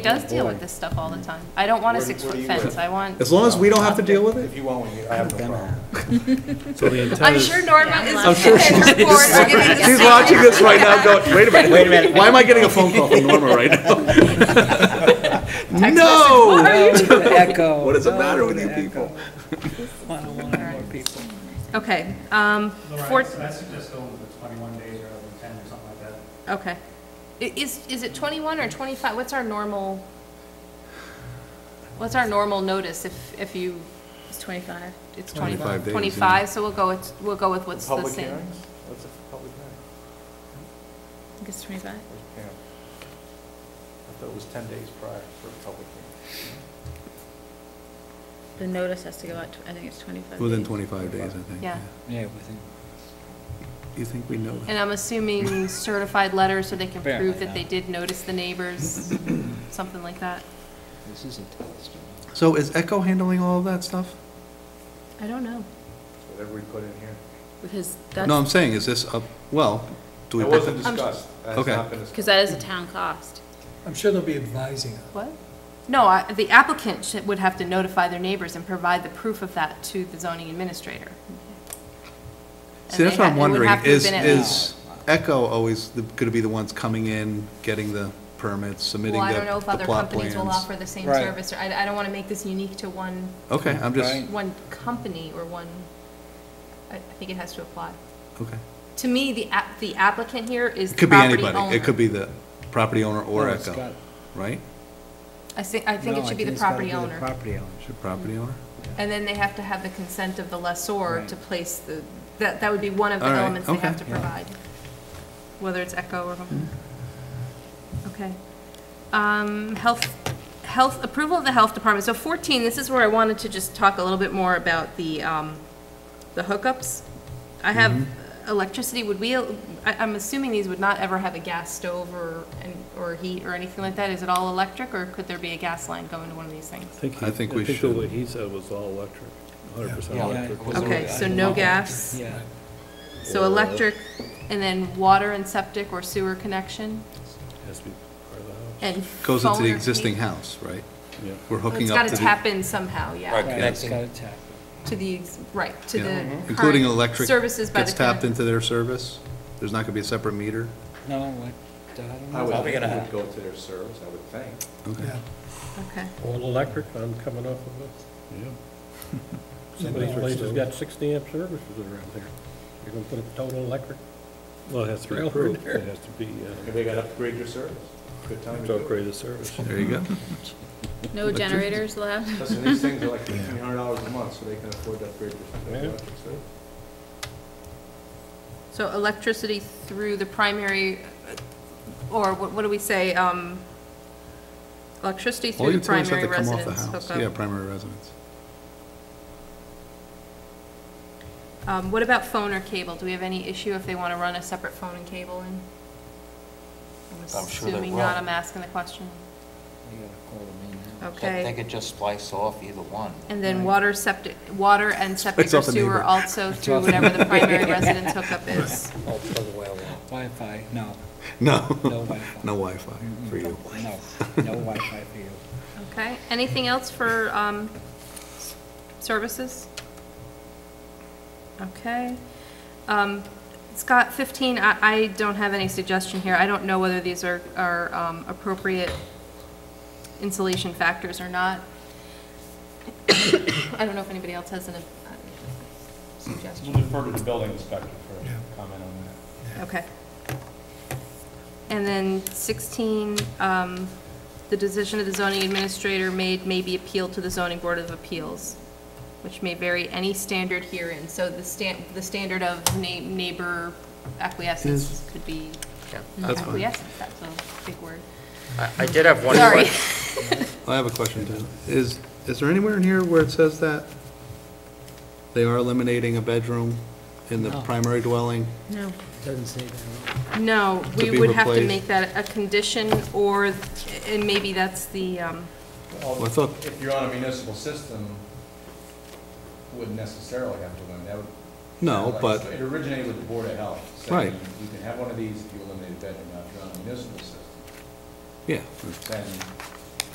does deal with this stuff all the time. I don't want a six-foot fence, I want, As long as we don't have to deal with it? If you want, we- I have no problem. So the I'm intent is, sure Norma is. I'm sure she's- on board. I'm gonna She's just- watching this right now going, wait a minute. Wait a minute. Why am I getting a phone call from Norma right now? No! Echo. What is the matter with you people? okay, um, Right, four, so that's just over the 21 days rather than 10 or something like that. okay. I- Is, is it twenty-one or twenty-five? What's our normal? What's our normal notice if, if you, It's 25. it's 25 twenty-one, days, yeah. twenty-five, so we'll go with, we'll go with what's the Public same. hearings? What's a public hearing? I think it's 25. Yeah. I thought it was 10 days prior for a public hearing. The notice has to go out, tw- I think it's 25. Within days. 25 days, I think. Yeah. Yeah, You think we know And that? I'm assuming certified letters so they can prove Apparently that they not. did notice the neighbors, something like that. this isn't Telestar. So is Echo handling all of that stuff? I don't know, Whatever we put in here. because No, I'm that's, saying, is this up, well, do we? It wasn't discussed. That's Okay. not been because discussed. that is a town cost. I'm sure they'll be advising us. What? No, I- the applicant should- would have to notify their neighbors and provide the proof of that to the zoning administrator. And See, that's they what ha- I'm it would wondering, have to have is, been at is Echo always going to be the ones coming in, getting the permits, submitting Well, the I the don't know if plot other companies will plans? offer the same Right. service, or I I don't want to make this unique to one, Okay, I'm just, Right. one company or one, I I think it has to apply. okay. To me, the app- the applicant here is It the could be property anybody. owner. It could be the property owner or No, Oh, it's Echo, got- right? I thi- I think no, it should be the it's gotta property owner. Property owner. Should property owner? And then they have to have the consent of the lessor Right. to place the, that, that would be one of the All right, elements they have okay. to provide, whether it's Echo or, Mm-hmm. okay. Um, health, health, approval of the health department, so 14, this is where I wanted to just talk a little bit more about the, um, the hookups. I have Mm-hmm. electricity, would we, I, I'm assuming these would not ever have a gas stove or, and- or heat or anything like that, is it all electric, or could there be a gas line going to one of these things? I think we I should. think what he said was all electric, 100% Yeah. electric. Yeah. Okay, so no gas? Yeah. So electric, and then water and septic or sewer connection, Has to be part of the house. and Goes phone into the or existing heat- house, right? Yeah. We're Well, It's hooking got up to to tap the, in somehow, Right, yeah, it's connecting. gotta tap. to the, ex- right, to Yeah. Mm-hmm. the including current electric, services by gets the tapped current. into their service? There's not gonna be a separate meter? No, what, I don't know. I would, Probably think gonna it would have- go to their service, I would think. Okay. Okay, All electric, I'm coming off of it. Somebody's place has got 60 amp services around there. You're going to put a total electric Well, it has to be Trailer approved, there. it has to be, Maybe uh, they got to upgrade your service. Good time to to do it. upgrade the service. There you go. No generators allowed? Listen, these things are like $1,500 a month, so they can afford to upgrade their their Yeah. electric service. so electricity through the primary, uh, or what, what do we say, um, electricity All through the utilities have primary to come off the residence house. hookup? Yeah, primary residence. Um, what about phone or cable? Do we have any issue if they want to run a separate phone and cable in? I'm I'm sure they assuming will. not, I'm asking the question. You gotta call them in now. Okay. They could just splice off either one. And then water septic, water and septic It's or off the sewer neighbor. also through off the whatever the primary residence hookup is. Oh, plug away, well, Wi-Fi, no, No, no Wi-Fi. no Wi-Fi for you. No, no Wi-Fi for you. Okay, anything else for, um, s- services? Okay. Um, Scott, fifteen, I, I don't have any suggestion here. I don't know whether these are, are, um, appropriate insulation factors or not. I don't know if anybody else has an, uh, suggestion. We'll defer to the building inspector for comment on that. Okay. And then 16, um, the decision of the zoning administrator made may be appealed to the zoning board of appeals, which may vary any standard herein. So the stan, the standard of na- neighbor acquiescence Is- could be That's fine. acquiescence, that's a big word. I I did have one Sorry. question. I have a question too. Is, is there anywhere in here where it says that they are eliminating a bedroom in the No. primary dwelling? No. Doesn't say that. No, To we be would have to replaced. make that a condition or, and maybe that's the, um, Well, I thought- If you're on a municipal system, wouldn't necessarily have to limit, that would. No, but, It originated with the Board of Health. Right. saying You can have one of these if you eliminate a bedroom, now if you're on a municipal system, yeah, then